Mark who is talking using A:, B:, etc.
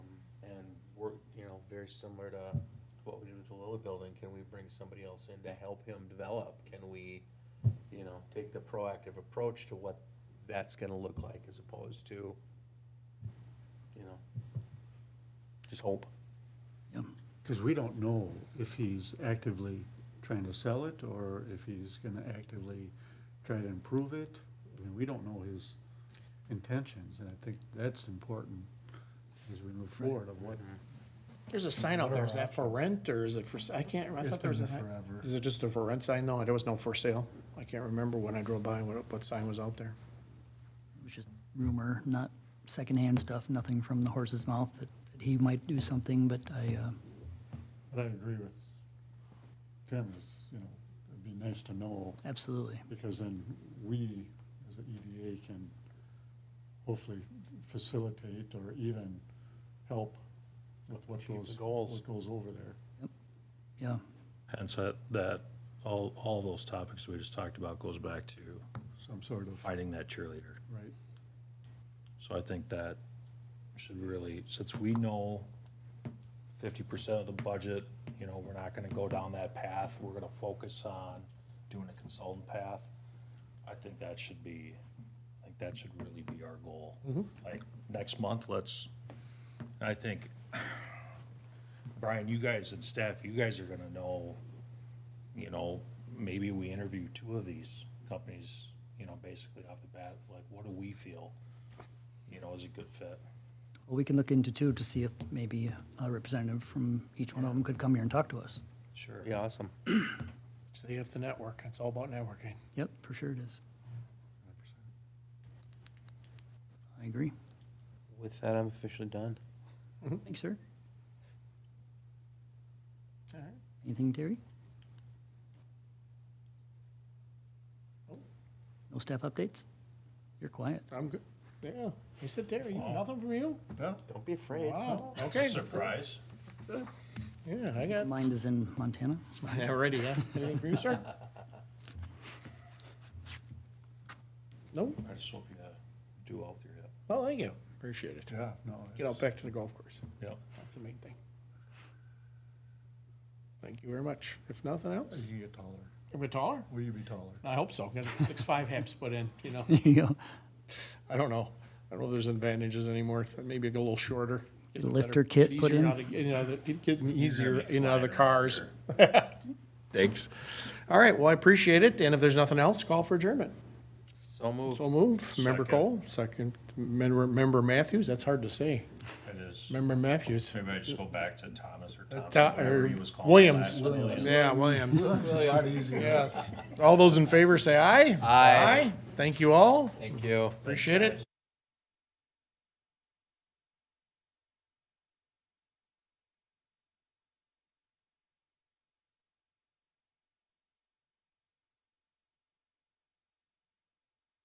A: very similar to what we did with the Lilly Building, can we bring somebody else in to help him develop? Can we, you know, take the proactive approach to what that's gonna look like as opposed to, you know, just hope.
B: Because we don't know if he's actively trying to sell it or if he's going to actively try to improve it. I mean, we don't know his intentions, and I think that's important as we move forward of what.
C: There's a sign out there, is that for rent or is it for, s- I can't, I thought there was a.
B: been forever.
C: Is it just a for rent sign? No, there was no for sale. I can't remember when I drove by, what, what sign was out there.
D: It was just rumor, not secondhand stuff, nothing from the horse's mouth that that he might do something, but I, uh,
B: But I agree with Tim, is, you know, it'd be nice to know,
D: absolutely.
B: because then we, as the EDA, can hopefully facilitate or even help with what
A: Achieve the
B: goes,
A: goals.
B: what goes over there.
D: Yeah,
E: And so that, all, all those topics we just talked about goes back to
B: some sort of,
E: finding that cheerleader.
B: right?
E: So I think that should really, since we know fifty percent of the budget, you know, we're not gonna go down that path, we're gonna focus on doing a consultant path. I think that should be, I think that should really be our goal. Like, next month, let's, I think, Brian, you guys and staff, you guys are gonna know, you know, maybe we interview two of these companies, you know, basically off the bat, like, what do we feel? you know, is a good fit.
D: well, we can look into too to see if maybe a representative from each one of them could come here and talk to us.
E: Sure.
A: Yeah, awesome.
C: So you have the network, it's all about networking.
D: Yep, for sure it is. I agree.
A: With that, I'm officially done.
C: Hmm.
D: Thanks, sir.
C: All right.
D: Anything, Terry?
C: Nope.
D: No staff updates? You're quiet.
C: I'm good. Yeah, you sit there, you,
E: Wow.
C: nothing from you?
A: Don't be afraid.
C: Wow,
E: That's
C: okay.
E: a surprise.
C: Yeah, I
D: His
C: got.
D: mind is in Montana.
C: Already, yeah. Anything from you, sir? Nope.
E: I just hope you uh, do all with your hip.
C: Well, thank you. Appreciate it.
B: Yeah, no.
C: Get out
B: it's-
C: back to the golf course.
E: Yep.
C: That's the main thing. Thank you very much. If nothing else,
B: You get taller.
C: am I taller?
B: Will you be taller?
C: I hope so. Got six five haps put in, you know.
D: There you go.
C: I don't know. I don't know if there's advantages anymore. Maybe go a little shorter. get a
D: Lifter
C: better-
D: kit
C: get
D: put
C: easier
D: in?
C: out of- You know, the- getting easier
E: be
C: in other
E: flying around
C: cars. Thanks. All right, well, I appreciate it. And if there's nothing else, call for adjournment.
A: So moved.
C: So move. Member
E: Second.
C: Cole, second. Member, member Matthews, that's hard to say.
E: It is.
C: Member Matthews.
E: Maybe I just go back to Thomas or
C: Ta-
E: Thompson,
C: or
E: whatever he was called.
C: Williams.
E: last month.
C: Yeah, Williams. Yes. All those in favor say aye. Aye. Thank you all.
A: Thank you.
C: Appreciate it.